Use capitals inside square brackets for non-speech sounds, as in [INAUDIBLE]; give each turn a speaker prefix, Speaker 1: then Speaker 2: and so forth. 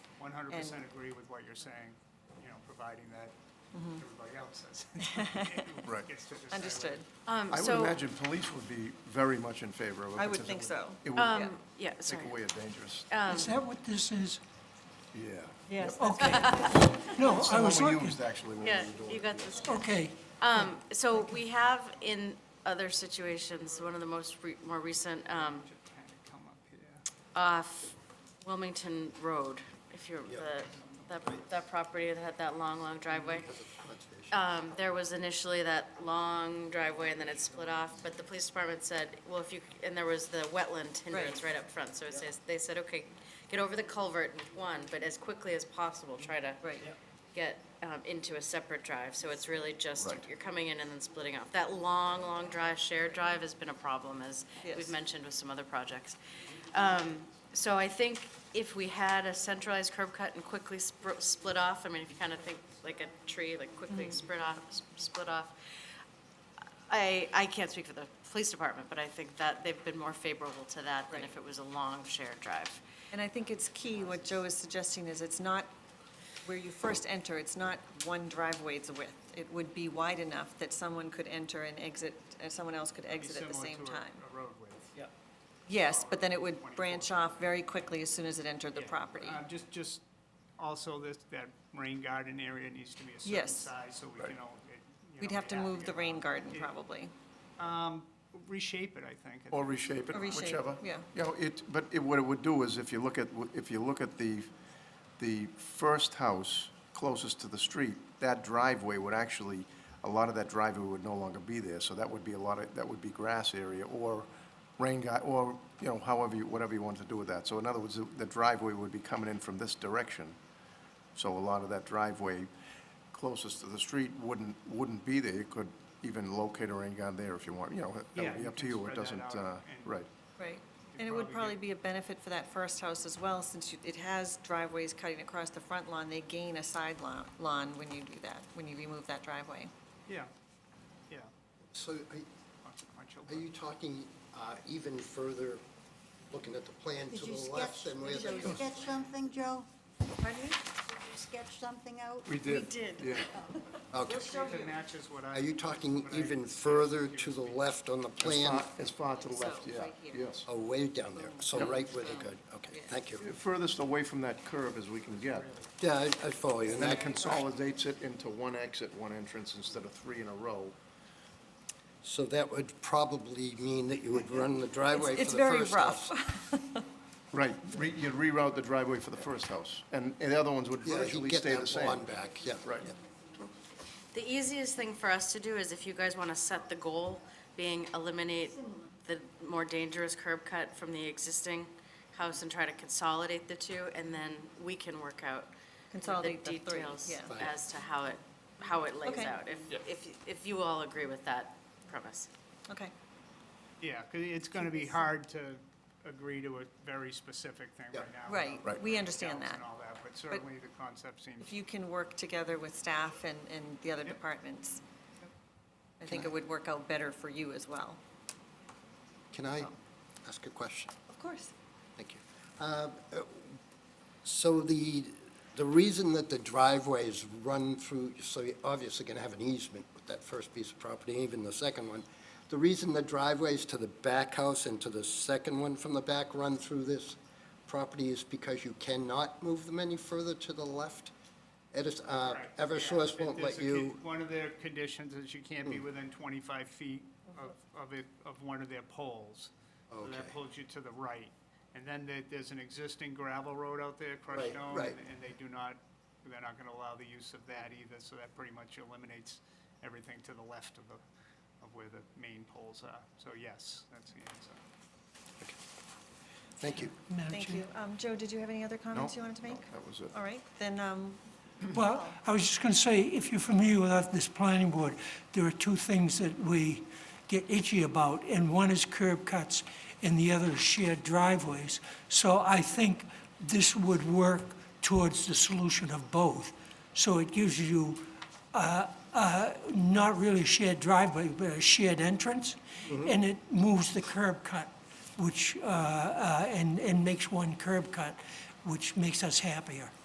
Speaker 1: One hundred percent
Speaker 2: And-
Speaker 1: agree with what you're saying, you know, providing that everybody else says.
Speaker 2: [LAUGHS]
Speaker 3: Right.
Speaker 1: Gets to decide whether-
Speaker 2: Mm-hmm. Understood.
Speaker 4: Um,
Speaker 3: I would
Speaker 4: so,
Speaker 3: imagine police would be very much in favor of it.
Speaker 2: I would
Speaker 3: because it
Speaker 2: think so. Uh,
Speaker 3: It would
Speaker 4: um, yeah, sorry.
Speaker 3: take away a dangerous,
Speaker 5: Is that what this is?
Speaker 3: yeah.
Speaker 2: Yes.
Speaker 5: Okay. No, I
Speaker 3: Someone
Speaker 5: was
Speaker 3: we
Speaker 5: looking,
Speaker 3: used actually when we
Speaker 4: Yeah,
Speaker 3: were doing
Speaker 4: you
Speaker 3: it.
Speaker 4: got this.
Speaker 5: okay,
Speaker 4: Um, so we have in other situations, one of the most, re- more recent, um,
Speaker 1: Should kinda come up here.
Speaker 4: off Wilmington Road, if you're, the, that, that property that had that long, long driveway. Um, there was initially that long driveway and then it split off, but the police department said, well, if you, and there was the wetland hindrance
Speaker 2: Right.
Speaker 4: right up front, so it says, they said, okay, get over the culvert with one, but as quickly as possible, try to
Speaker 2: Right. Yep.
Speaker 4: get, um, into a separate drive, so it's really just,
Speaker 3: Right.
Speaker 4: you're coming in and then splitting off. That long, long drive, shared drive has been a problem, as
Speaker 2: Yes.
Speaker 4: we've mentioned with some other projects. Um, So I think if we had a centralized curb cut and quickly spr- split off, I mean, if you kind of think like a tree, like quickly split off, s- split off, I, I can't speak for the police department, but I think that they've been more favorable to that than if it was a long shared drive.
Speaker 2: And I think it's key, what Joe is suggesting is it's not where you first enter, it's not one driveway's width. It would be wide enough that someone could enter and exit, and someone else could
Speaker 1: Be
Speaker 2: exit at the
Speaker 1: similar
Speaker 2: same
Speaker 1: to a-
Speaker 2: time.
Speaker 1: A road width.
Speaker 2: Yes, but then it would
Speaker 1: 24.
Speaker 2: branch off very quickly as soon as it entered the
Speaker 1: Yeah.
Speaker 2: property.
Speaker 1: Uh, Just, just also this, that rain garden area needs to be a certain
Speaker 2: Yes.
Speaker 1: size, so we can all. get- you
Speaker 2: We'd
Speaker 1: know,
Speaker 2: have to
Speaker 1: yeah,
Speaker 2: move the
Speaker 1: yeah.
Speaker 2: rain garden,
Speaker 1: Yeah.
Speaker 2: probably.
Speaker 1: Reshape it, I think.
Speaker 3: Or reshape it,
Speaker 2: Or reshape,
Speaker 3: whichever.
Speaker 2: yeah.
Speaker 3: You know, it, but it, what it would do is if you look at, if you look at the, the first house closest to the street, that driveway would actually, a lot of that driveway would no longer be there, so that would be a lot of, that would be grass area or rain guy, or, you know, however, you whatever you want to do with that. So in other words, the- the driveway would be coming in from this direction. So a lot of that driveway closest to the street wouldn't, wouldn't be there. You could even locate a rain garden there if you want, you know, that
Speaker 1: Yeah,
Speaker 3: would be
Speaker 1: you
Speaker 3: up to
Speaker 1: can
Speaker 3: you. It
Speaker 1: spread that
Speaker 3: doesn't,
Speaker 1: out
Speaker 3: uh,
Speaker 1: and-
Speaker 3: right.
Speaker 2: Right. And it would
Speaker 1: probably
Speaker 2: probably be a benefit for that first house as well, since you- it has driveways cutting across the front lawn. They gain a side lawn, lawn when you do that, when you remove that driveway.
Speaker 1: Yeah, yeah.
Speaker 6: So are-
Speaker 1: consequential,
Speaker 6: are you talking uh, even further, looking at the plan
Speaker 7: Did
Speaker 6: to
Speaker 7: you
Speaker 6: the
Speaker 7: sketch,
Speaker 6: left and where
Speaker 7: did
Speaker 6: that
Speaker 7: you
Speaker 6: goes?
Speaker 7: sketch something, Joe? Did you sketch something out?
Speaker 3: We did. Yeah.
Speaker 6: Okay.
Speaker 7: We'll show
Speaker 1: but It
Speaker 7: you.
Speaker 1: matches what I.
Speaker 6: Are you talking
Speaker 1: what I-
Speaker 6: even further to the left on the
Speaker 3: As
Speaker 6: plan?
Speaker 3: far, as far to the left, yeah,
Speaker 2: right here.
Speaker 3: yes.
Speaker 6: Oh, way down there, so right where they go, okay, thank you.
Speaker 3: Furthest away from that curve as we can get.
Speaker 6: Yeah, I I follow you, and
Speaker 3: And then it
Speaker 6: that,
Speaker 3: consolidates it into one exit, one entrance, instead of three in a row.
Speaker 6: so that would probably mean that you would run the driveway for the
Speaker 2: It's
Speaker 6: first
Speaker 2: very
Speaker 6: house.
Speaker 2: rough.
Speaker 3: Right, re- you'd reroute the driveway for the first house, and, and the other ones would
Speaker 6: Yeah, you
Speaker 3: virtually
Speaker 6: get
Speaker 3: stay the
Speaker 6: that
Speaker 3: same.
Speaker 6: lawn back, yeah.
Speaker 3: Right.
Speaker 6: yeah.
Speaker 4: The easiest thing for us to do is if you guys want to set the goal, being eliminate the more dangerous curb cut from the existing house and try to consolidate the two, and then we can work out
Speaker 2: Consolidate the three,
Speaker 4: details
Speaker 2: yeah.
Speaker 6: Right.
Speaker 4: as to how it, how it lays
Speaker 2: Okay.
Speaker 4: out, if, if, if you all agree with that premise.
Speaker 2: [LAUGHS] Okay.
Speaker 1: Yeah, 'cause it's going to be hard to agree to a very specific thing
Speaker 6: Yeah.
Speaker 1: right now. about
Speaker 2: Right,
Speaker 3: Right.
Speaker 2: we understand
Speaker 1: details
Speaker 2: that.
Speaker 1: And all that, but certainly the concept seems,
Speaker 2: If you can work together with staff and, and the other
Speaker 1: Yep.
Speaker 2: departments, I think it would work out better for you as well.
Speaker 6: Can I ask a question?
Speaker 2: Of course.
Speaker 6: Thank you. Uh, uh, So the, the reason that the driveway is run through, so you're obviously going to have an easement with that first piece of property, even the second one. The reason the driveways to the back house and to the second one from the back run through this property is because you cannot move them any further to the left? Edis- uh,
Speaker 1: Correct, yeah.
Speaker 6: Eversource
Speaker 1: It-
Speaker 6: won't
Speaker 1: there's
Speaker 6: let
Speaker 1: a con-
Speaker 6: you, Mm.
Speaker 1: One of their conditions is you can't be within 25 feet of, of it, of one of their poles. So
Speaker 6: Okay.
Speaker 1: that pulls you to the right. And then there, there's an existing gravel road out there, crushed
Speaker 6: Right,
Speaker 1: stone,
Speaker 6: right.
Speaker 1: and and they do not, they're not going to allow the use of that either, so that pretty much eliminates everything to the left of the, of where the main poles are. So yes, that's the answer.
Speaker 6: thank you.
Speaker 5: Madam
Speaker 2: Thank
Speaker 5: Chair.
Speaker 2: you. Um, Joe, did you have any other comments you wanted to make?
Speaker 3: That was it.
Speaker 2: All right, then, um,
Speaker 5: Well, I was just going to say, if you're familiar with this planning board, there are two things that we get itchy about, and one is curb cuts, and the other is shared driveways. So I think this would work towards the solution of both. So it gives you uh, uh, not really a shared driveway, but a shared entrance, and it moves the curb cut, which, uh, uh, and and makes one curb cut, which makes us happier.